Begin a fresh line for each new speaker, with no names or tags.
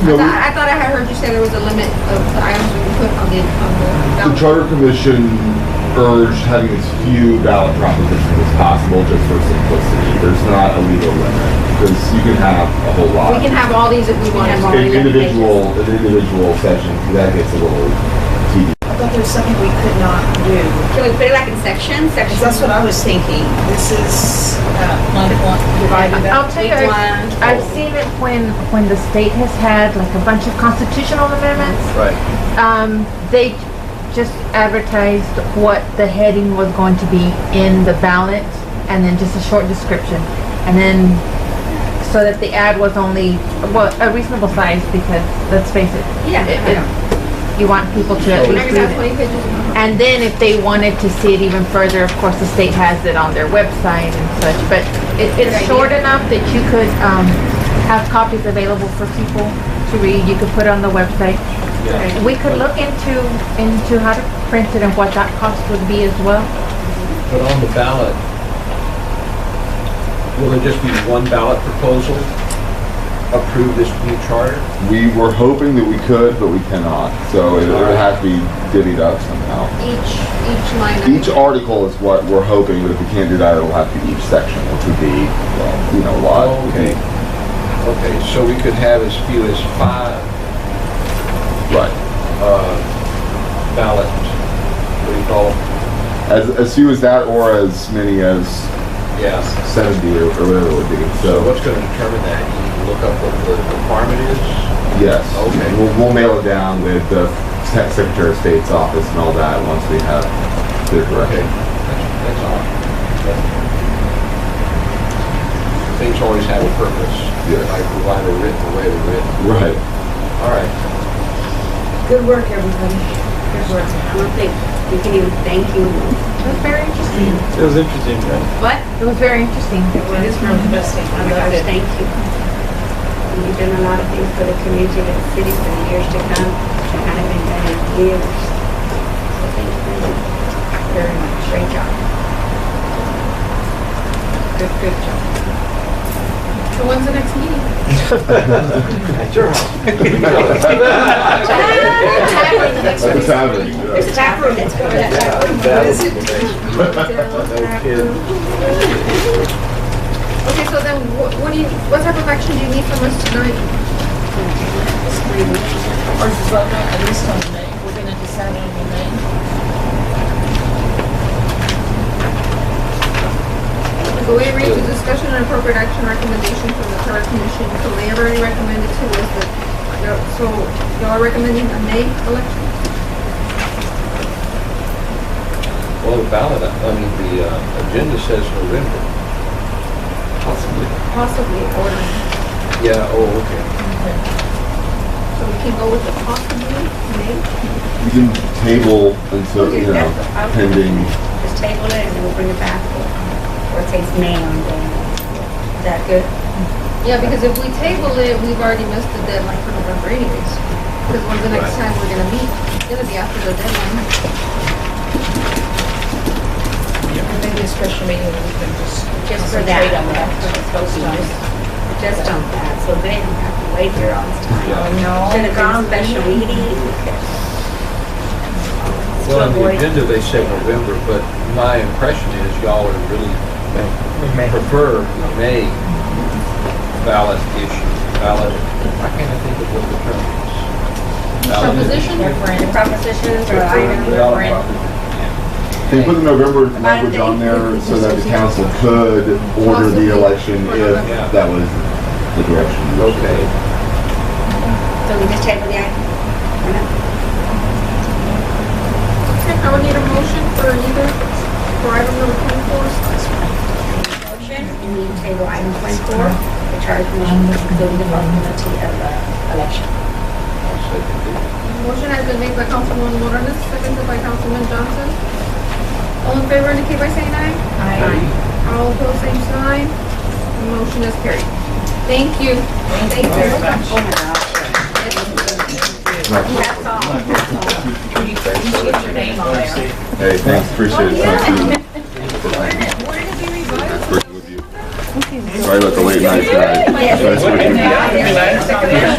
No, we-
I thought I had heard you say there was a limit of the items we could put on the, on the
The
ballot.
Charter Commission urged having as few ballot propositions as possible just for simplicity. There's not a legal limit, because you can have a whole lot.
We can have all these if we want.
can have all
An
the
individual, an individual session, that gets a little tedious.
I thought there was something we could not do.
Can we put it like in sections, sections?
That's what I was thinking. This is, uh,
Like, one-
divided up.
I'll tell you, I've, I've seen it when, when the state has had like a bunch of constitutional amendments.
Right.
Um, they just advertised what the heading was going to be in the ballot and then just a short description. And then, so that the ad was only, well, a reasonable size because, let's face it,
Yeah.
it- it- you want people to
Oh,
at
Whenever
least
you
read
have
it.
twenty pages.
And then if they wanted to see it even further, of course, the state has it on their website and such, but it, it's
Good idea.
short enough that you could, um, have copies available for people to read, you could put it on the website. We could look into, into how to print it and what that cost would be as well.
But on the ballot, will there just be one ballot proposal? Approve this new charter?
We were hoping that we could, but we cannot, so it it would have to be divvied up somehow.
Each, each line. item.
Each article is what we're hoping, but if we can't do that, it'll have to be each section, which would be, well, you know, a lot.
Oh, Okay. Okay, so we could have as few as five
Right.
uh, ballot, what do you call them?
As, as few as that, or as many as
Yes.
70 or, or whatever it would be. So,
So what's going to determine that? You look up what the requirement is?
yes.
Okay.
We'll, we'll mail it down with the Sec- Secretary of State's office and all that once we have their
Okay,
direction.
that's that's all. Things always have a purpose.
Yes.
I provide a written, way to written.
Right.
All right.
Good work, everybody. Good work.
Well, thank, we can even thank you.
It was very interesting.
It was interesting, right?
What?
It was very interesting.
It is really interesting. I
Oh my
love
gosh,
it.
thank you. You've done a lot of things for the community and the city for the years to come. I haven't done it in years. So thank you very much. Great job.
Good, good job.
So when's the next meeting?
It's happening.
There's a tap room, let's go to that tap room.
What is it?
Okay, so then what, what do you, what type of action do you need from us tonight?
or just vote on at least on the name, we're gonna decide on the name.
So we read the discussion and appropriate action recommendation from the charter commission, so they have already recommended to us that, no- so y'all are recommending a May election?
Well, the ballot, I mean, the uh, agenda says November. Possibly.
Possibly, or,
Yeah, oh, okay.
so we can go with the possibly May?
You can table until, you know, pending.
Just table it and we'll bring it back. Or it takes May on day. Is that good?
Yeah, because if we table it, we've already missed the deadline for November anyways. Because when's the next time we're gonna meet? It's gonna be after the deadline.
Maybe a special meeting where we can just
Just for that.
concentrate on that. Those times.
Just on that, so they don't have to wait here all this time.
Yeah.
No.
Should have gone special meeting.
Well, on the
avoid-
agenda, they said November, but my impression is y'all are really prefer May ballot issue, ballot, I can't think of what the term is. Ballot
Proposition?
The propositions or items.
Ballot proposition.
They put the November language on there so that the council could order the election if that was the direction.
Okay.
So we just table the item? Or not?
Okay, I would need a motion for either, for item number twenty-four.
Motion, you need to table item twenty-four, the charge commission including the vulnerability of uh, election.
I'll second it.
Motion has been made by Councilwoman Morales, seconded by Councilman Johnson. All in favor indicate by saying aye. Aye. All opposed, same sign. The Motion is carried. Thank you. Thank you very much.
That's all.
You first get your name on there.
Hey, thanks, appreciate it. Thank you. Sorry about the late night, guys. Nice working with you.
Yeah.